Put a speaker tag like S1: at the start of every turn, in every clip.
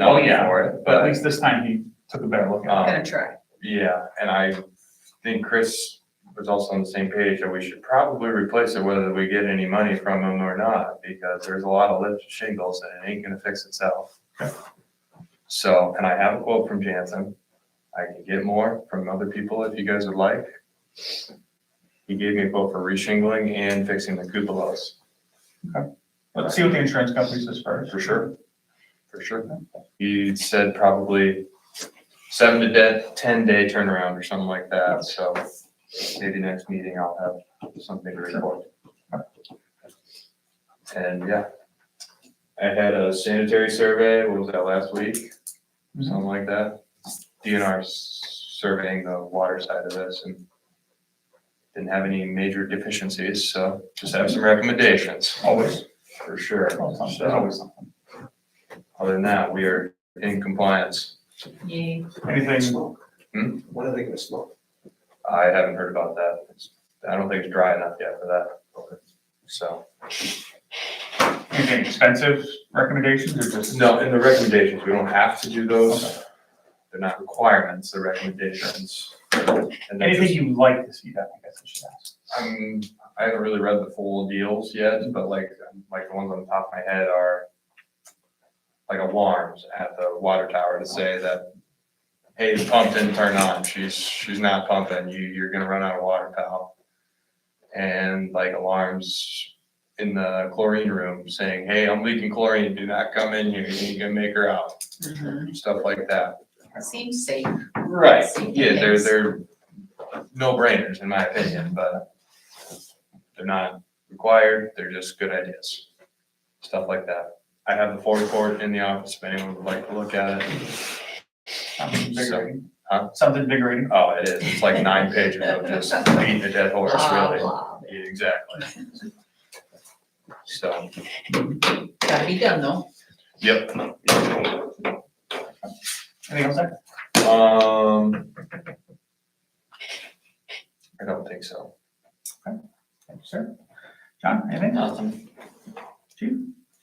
S1: Oh,
S2: known
S1: yeah,
S2: for it,
S1: But at
S2: but,
S1: least this time he took a better look at it.
S2: um,
S3: Gonna try.
S2: yeah, and I think Chris was also on the same page that we should probably replace it whether we get any money from them or not, because there's a lot of lifted shingles and it ain't gonna fix itself. So, and I have a quote from Jansen. I can get more from other people if you guys would like. He gave me a quote for reshingling and fixing the cupolas.
S1: Let's see what the insurance company says first.
S2: For sure. For sure. You said probably seven to de- ten day turnaround or something like that, so maybe next meeting I'll have something to report. And yeah. I had a sanitary survey, what was that, last week? Something like that. DNR s- surveying the water side of this and didn't have any major deficiencies, so just have some recommendations,
S1: Always,
S2: for sure.
S1: there's always
S2: So-
S1: something.
S2: other than that, we are in compliance.
S3: Yay.
S1: Anything,
S4: Smoke.
S2: Hmm?
S4: When are they gonna smoke?
S2: I haven't heard about that. It's- I don't think it's dry enough yet for that. So,
S1: anything expensive recommendations or just?
S2: no, in the recommendations, we don't have to do those. They're not requirements, they're recommendations. And they're
S1: Anything
S2: just-
S1: you'd like to see that, I guess I should ask.
S2: I'm, I haven't really read the full deals yet, but like, like the ones on the top of my head are like alarms at the water tower to say that, hey, the pump didn't turn on, she's, she's not pumping, you, you're gonna run out of water, pal. And like alarms in the chlorine room saying, hey, I'm leaking chlorine, do not come in here, you're gonna make her out,
S3: Mhm.
S2: stuff like that.
S3: Seems safe.
S2: Right,
S3: Same
S2: yeah, they're,
S3: things.
S2: they're no brainers in my opinion, but they're not required, they're just good ideas, stuff like that. I have the full report in the office if anyone would like to look at it.
S1: Something invigorating.
S2: Huh?
S1: Something invigorating.
S2: Oh, it is, it's like nine pages of just beating a dead horse,
S3: Blah,
S2: really.
S3: blah.
S2: Yeah, Exactly. So,
S3: Gotta be done though.
S2: yep,
S1: Anything else there?
S2: um. I don't think so.
S1: Thank you, sir. John, anything?
S2: Nothing.
S1: Chief?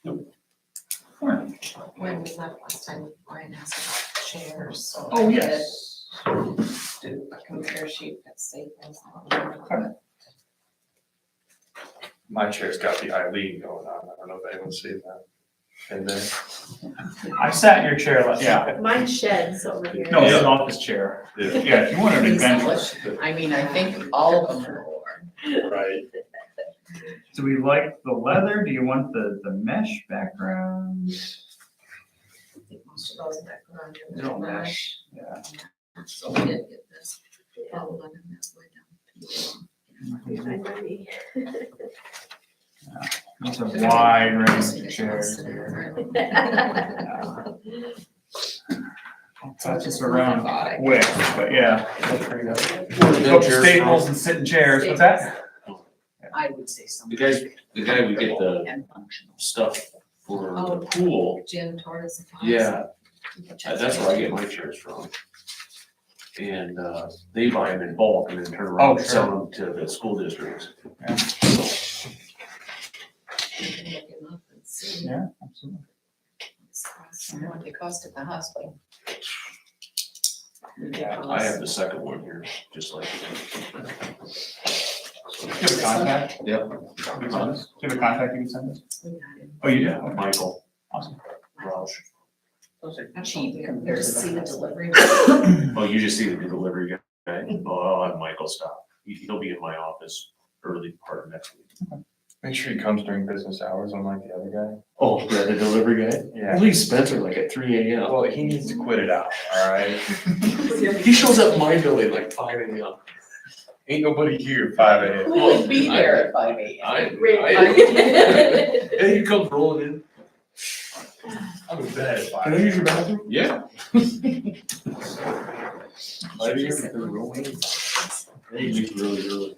S1: Nope. Lauren?
S3: When we left last time, Ryan asked about chairs, so.
S1: Oh, yes.
S3: I did Do a compare sheet that's safe. and sound.
S2: My chair's got the Eileen going on, I don't know if anyone's seen that. And then.
S1: I sat in your chair last, yeah.
S5: Mine sheds over here.
S1: No, it's an office chair.
S2: Yeah,
S1: Yeah, if you wanted an
S3: Please
S1: adventure.
S3: publish. I mean, I think all of them are. over.
S2: right.
S1: Do we like the leather? Do you want the, the mesh background?
S3: I think Most of those that go on there.
S1: No
S3: mesh.
S1: Yeah.
S3: So we did get this. all done and that's why down.
S5: Find money.
S1: It's a wide range of chairs here. Yeah. I'll Touch this around quick, but yeah. Go to Staples and sit in chairs, what's that?
S3: I would say something.
S6: The guys, the guy we get the
S3: And functional.
S6: stuff for
S3: Oh.
S6: the pool,
S3: Gin, tortoise. and fox.
S6: yeah,
S3: You can check
S6: uh, that's
S3: that.
S6: where I get my chairs from. And, uh, they buy them in bulk and then turn
S1: Oh,
S6: around and
S1: sure.
S6: sell them to the school districts.
S3: You can look them up and see.
S1: Yeah, absolutely.
S3: It's awesome What they cost at the hospital. We get
S1: Yeah,
S6: I
S3: those.
S6: have the second one here, just like.
S1: Do you have a contact?
S6: Yep.
S1: You can send us? Do you have a contact you can send us?
S3: We got it.
S1: Oh, you do? Okay,
S6: Michael
S1: Awesome.
S6: Roush.
S3: Cheap compared to see the delivery.
S6: Oh, you just see the delivery guy, oh, I'll have Michael stop, He- he'll be in my office early part of next week.
S2: Make sure he comes during business hours, unlike the other
S6: Oh, yeah, the delivery guy?
S2: guy. Yeah.
S6: leave Spencer like at three AM.
S2: Well, he needs to quit it out, all right?
S6: He shows up my building like five AM.
S2: Ain't nobody here five AM.
S5: Who would be
S6: I-
S5: there?
S3: at five eight.
S6: I, I,
S5: Right.
S6: yeah, he comes rolling in.
S2: I'm in bed at
S6: Can I
S2: five.
S6: use your bathroom? Yeah. Five AM, they're rolling in. They leave really early.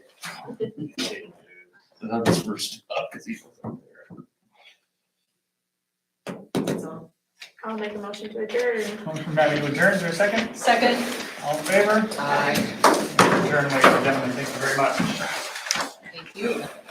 S6: And that's first up, cause he's up there.
S5: I'll make a motion to adjourn.
S1: Motion from Matt to adjourn, is there a second?
S3: Second.
S1: All in favor?
S3: Aye,
S1: Adjourn, ladies and gentlemen, thank you very much.
S3: thank you.